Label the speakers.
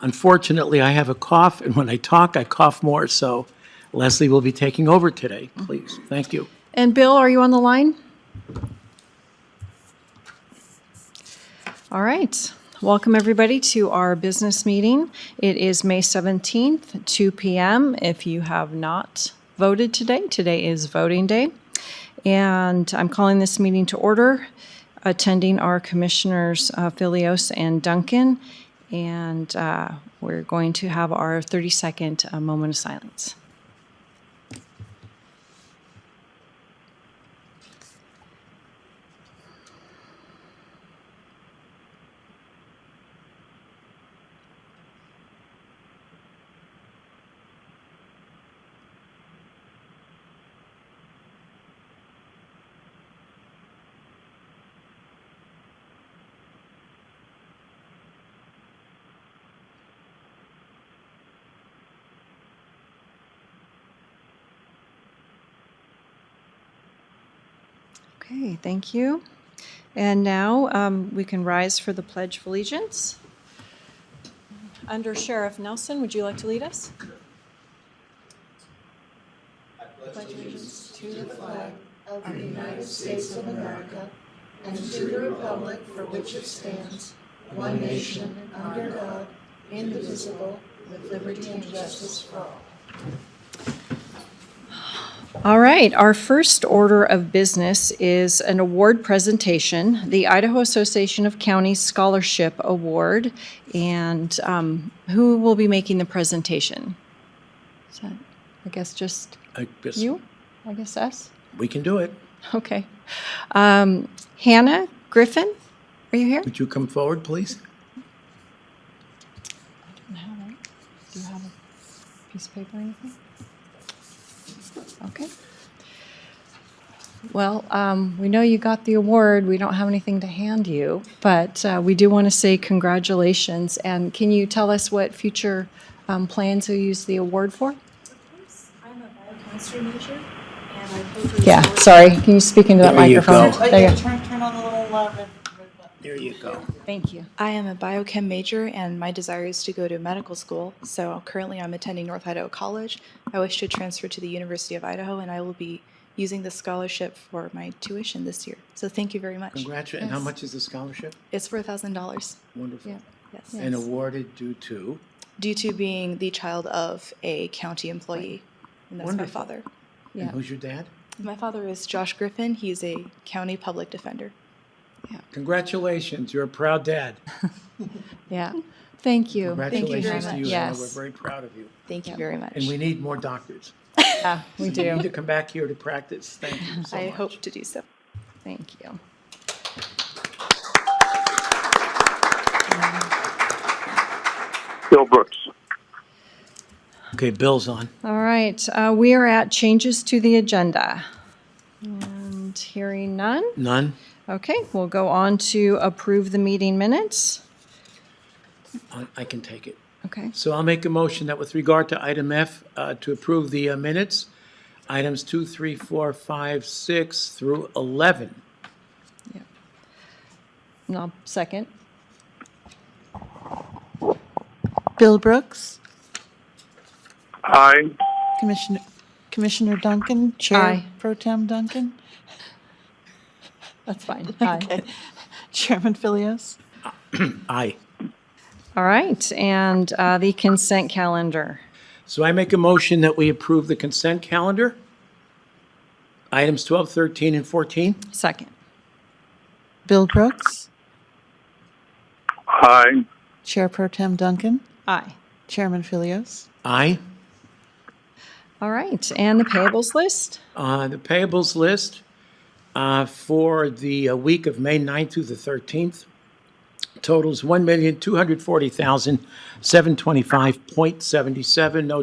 Speaker 1: Unfortunately, I have a cough, and when I talk, I cough more, so Leslie will be taking over today, please. Thank you.
Speaker 2: And Bill, are you on the line? All right. Welcome, everybody, to our business meeting. It is May 17th, 2 PM. If you have not voted today, today is voting day. And I'm calling this meeting to order. Attending are Commissioners uh, Filios and Duncan. And uh, we're going to have our 30-second uh, moment of silence. Okay, thank you. And now um, we can rise for the Pledge of Allegiance. Under Sheriff Nelson, would you like to lead us? All right, our first order of business is an award presentation, the Idaho Association of Counties Scholarship Award. And um, who will be making the presentation? Is that, I guess, just
Speaker 1: I guess
Speaker 2: you? I guess us?
Speaker 1: We can do it.
Speaker 2: Okay. Um, Hannah Griffin, are you here?
Speaker 1: Would you come forward, please?
Speaker 2: Do you have a piece of paper or anything? Okay. Well, um, we know you got the award. We don't have anything to hand you, but uh, we do want to say congratulations. And can you tell us what future um, plans you'll use the award for?
Speaker 3: I'm a biochemistry major, and I co-created.
Speaker 2: Yeah, sorry. Can you speak into that
Speaker 1: There you
Speaker 2: microphone?
Speaker 1: go.
Speaker 2: There you go.
Speaker 3: Turn, turn on the little, uh, red, red button.
Speaker 1: There you go.
Speaker 2: Thank you.
Speaker 3: I am a biochem major, and my desire is to go to medical school. So currently, I'm attending North Idaho College. I wish to transfer to the University of Idaho, and I will be using the scholarship for my tuition this year. So thank you very much.
Speaker 1: Congratulations. And how much is the scholarship?
Speaker 3: It's for $1,000.
Speaker 1: Wonderful.
Speaker 3: Yes.
Speaker 1: And awarded due to?
Speaker 3: Due to being the child of a county employee, and that's my
Speaker 1: Wonderful.
Speaker 3: father.
Speaker 1: And who's your dad?
Speaker 3: My father is Josh Griffin. He's a county public defender.
Speaker 1: Congratulations. You're a proud dad.
Speaker 2: Yeah. Thank you.
Speaker 1: Congratulations to
Speaker 3: much.
Speaker 1: you. Anna. We're
Speaker 2: Yes.
Speaker 1: very proud of you.
Speaker 3: Thank you very much.
Speaker 1: And we need more doctors.
Speaker 2: Yeah, we
Speaker 1: You
Speaker 2: do.
Speaker 1: need to come back here to practice. Thank you so
Speaker 3: I
Speaker 1: much.
Speaker 3: hope to do so.
Speaker 2: Thank you.
Speaker 4: Bill Brooks.
Speaker 1: Okay, Bill's on.
Speaker 2: All right, uh, we are at changes to the agenda. And hearing none.
Speaker 1: None?
Speaker 2: Okay, we'll go on to approve the meeting minutes.
Speaker 1: I- I can take it.
Speaker 2: Okay,
Speaker 1: So I'll make a motion that with regard to item F, uh, to approve the uh, minutes, items two, three, four, five, six through 11.
Speaker 2: and I'll second.
Speaker 5: Bill Brooks,
Speaker 4: Aye.
Speaker 5: Commissioner, Commissioner Duncan,
Speaker 2: Aye.
Speaker 5: Chair Pro Tem Duncan,
Speaker 2: That's fine. Aye.
Speaker 5: Chairman Filios.
Speaker 1: Aye.
Speaker 2: All right, and uh, the consent calendar.
Speaker 1: So I make a motion that we approve the consent calendar, items 12, 13, and 14.
Speaker 2: Second.
Speaker 5: Bill Brooks,
Speaker 4: Aye.
Speaker 5: Chair Pro Tem Duncan,
Speaker 2: Aye.
Speaker 5: Chairman Filios.
Speaker 1: Aye.
Speaker 2: All right, and the payables list?
Speaker 1: Uh, The payables list uh, for the uh, week of May 9th through the 13th totals 1240725 dollars 77 No